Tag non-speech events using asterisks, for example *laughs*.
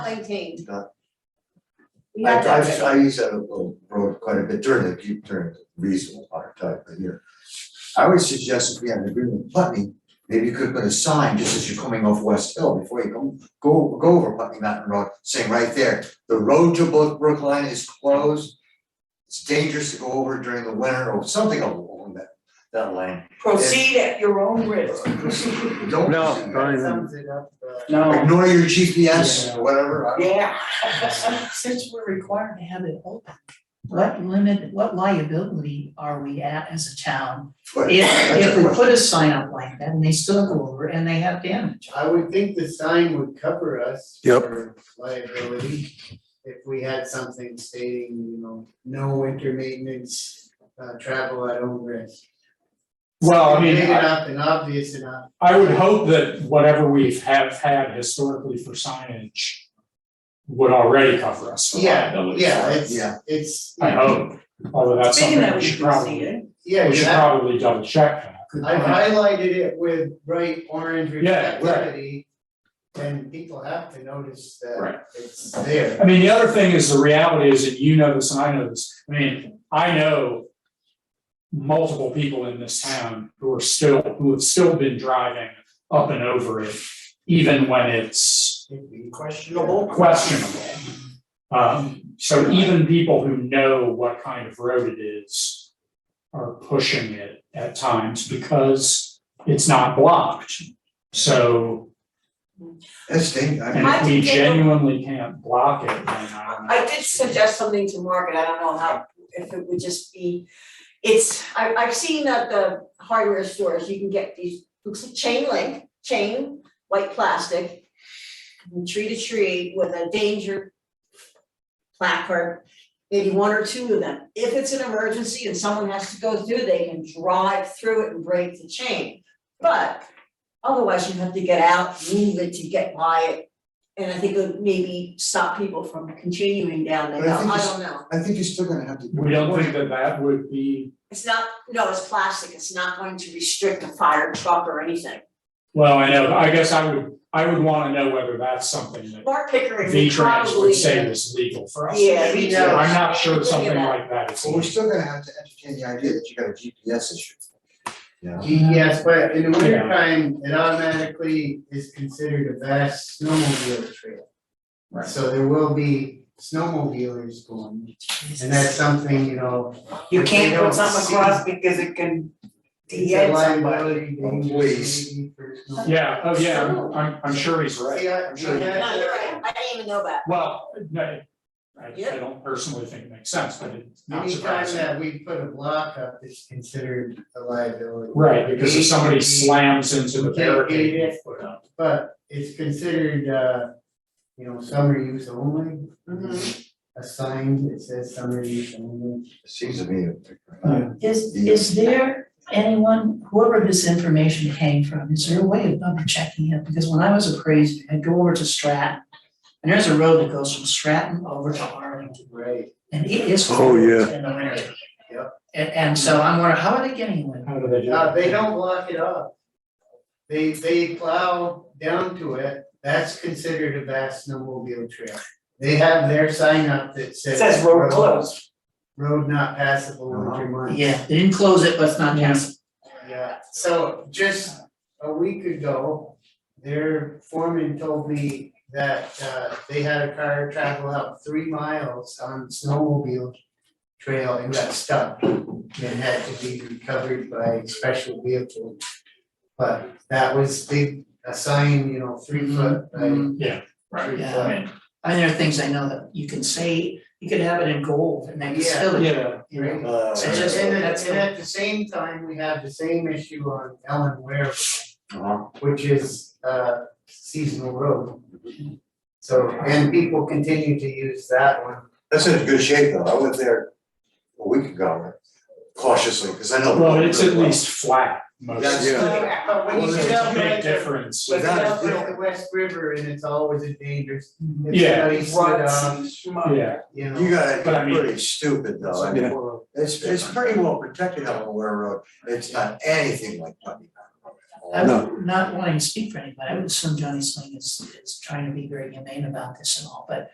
nineteen. Not- We I had that. drive, I use that little road quite a bit during the peak during the reasonable part of time of year. I would suggest if we have an agreement with Putney, maybe you could put a sign just as you're coming off West Hill before you go, go, go over Putney Mountain Road, saying right there, the road to Brook- Brookline is closed. It's dangerous to go over during the winter or something along that, that *laughs* lane. Proceed at your own risk. Don't. No, do that. don't even, Sums it up, uh, No, Ignore your GPS or whatever. I don't- Yeah. *laughs* Since we're required to have it open, what limit, what liability are we at as a town? If, That's a if we question. put a sign up like that and they still go over and they have damage, I would think the sign would cover us Yep. for liability. If we had something stating, you know, no winter maintenance, uh, travel at own risk. Well, I Big mean, I, enough and obvious enough, I would hope that whatever we have had historically for signage would already cover us for Yeah, liability. yeah, it's, Yeah. it's. I hope, although that's Speaking something of, we we should can see probably, it. Yeah, we should exactly. probably double check that. I highlighted it with bright orange Yeah, right. reflectivity. And people have to notice Right. that it's there. I mean, the other thing is the reality is that you know this and I know this. I mean, I know multiple people in this town who are still, who have still been driving up and over it, even when it's Questionable. questionable. Um, so even people who know what kind of road it is are pushing it at times because it's not blocked. So, That's dangerous. I mean, and if I we think they- genuinely can't block it, then uh, I don't know. I did suggest something to Margaret, I don't know how, if it would just be, it's, I I've seen at the hardware stores, you can get these, looks like chain link, chain, white plastic. from Tree to tree with a danger placard, maybe one or two of them, if it's an emergency and someone has to go through, they can drive through it and break the chain. But otherwise you have to get out, move it to get by it, and I think it would maybe stop people from continuing down the But I hill, think I it's- don't know. I think you're still gonna have to. We don't think that that would be, It's not, no, it's plastic, it's not going to restrict a fire truck or anything. well, I know, I guess I would, I would wanna know whether that's something that Mark Pickering would V-Trans probably. would say is legal for us. Yeah, we So know. I'm not sure Think of something that. like that is Well, we're legal. still gonna have to entertain the idea that you got a GPS issue. Yeah. Yes, but in the winter time, it automatically is considered a vast snowmobile trail. Right. So there will be snowmobilers going, and that's something, you know. You if they can't put don't something see, across because it can It's a liability Oh, danger please. maybe for snowmobiles. Yeah, oh yeah, I'm- I'm, I'm sure he's right. Yeah, I'm sure he- yeah. No, you're right, I didn't even know that. Well, no, I, I Yeah. don't personally think it makes sense, but it's not Anytime surprising. that we put a block up, it's considered a liability. Right, because if somebody We- slams into the we can't barricade. get it, But it's considered, uh, you know, summer use only. A sign that says summer use only. It seems to me. is, is there anyone, whoever this information came from, is there a way of double checking it? Because when I was appraised, I'd go over to Stratton, and there's a road that goes from Stratton over to Arlington. Right. And it is Oh, cold yeah. in the winter. Yep. And, and so I'm wondering, how are they getting away? How do they do Uh, that? they don't block it up. They, they plow down to it, that's considered a vast snowmobile trail. They have their sign up that says. Says road closed. Road not passable winter months. Yeah, they didn't close it, but it's not Yeah. passable. Yeah, so just a week ago, their foreman told me that uh they had a car travel out three miles on snowmobile trail and got stuck and had to be recovered by special vehicle. But that was big, a sign, you know, three foot, by Yeah, right. three Mm-hmm. Yeah. foot. I mean, there are things I know that you can say, you could have it in gold and they can Yeah. still, you Yeah, know? Uh, It's just- And and that's- and at the same time, we have the same issue on Ellen Ware uh-huh. which is uh seasonal road. So, and people continue to use that one. That's in good shape though. I went there a week ago uh, cautiously, because I know. well, it's at least flat most of That's- the time. Yeah, But when you Well, get There's a out big at the, difference. when you get That is out at the different. West River and it's always a dangerous, it's Yeah. muddy, slid on, Yeah, you know. You gotta But I be mean- pretty stupid though. I mean, it's, it's pretty well protected on Ware Road. It's not anything like Putney Mountain Road at all. I No. would, not wanting to speak for anybody, I would assume Johnny Sling is, is trying to be very humane about this and all, but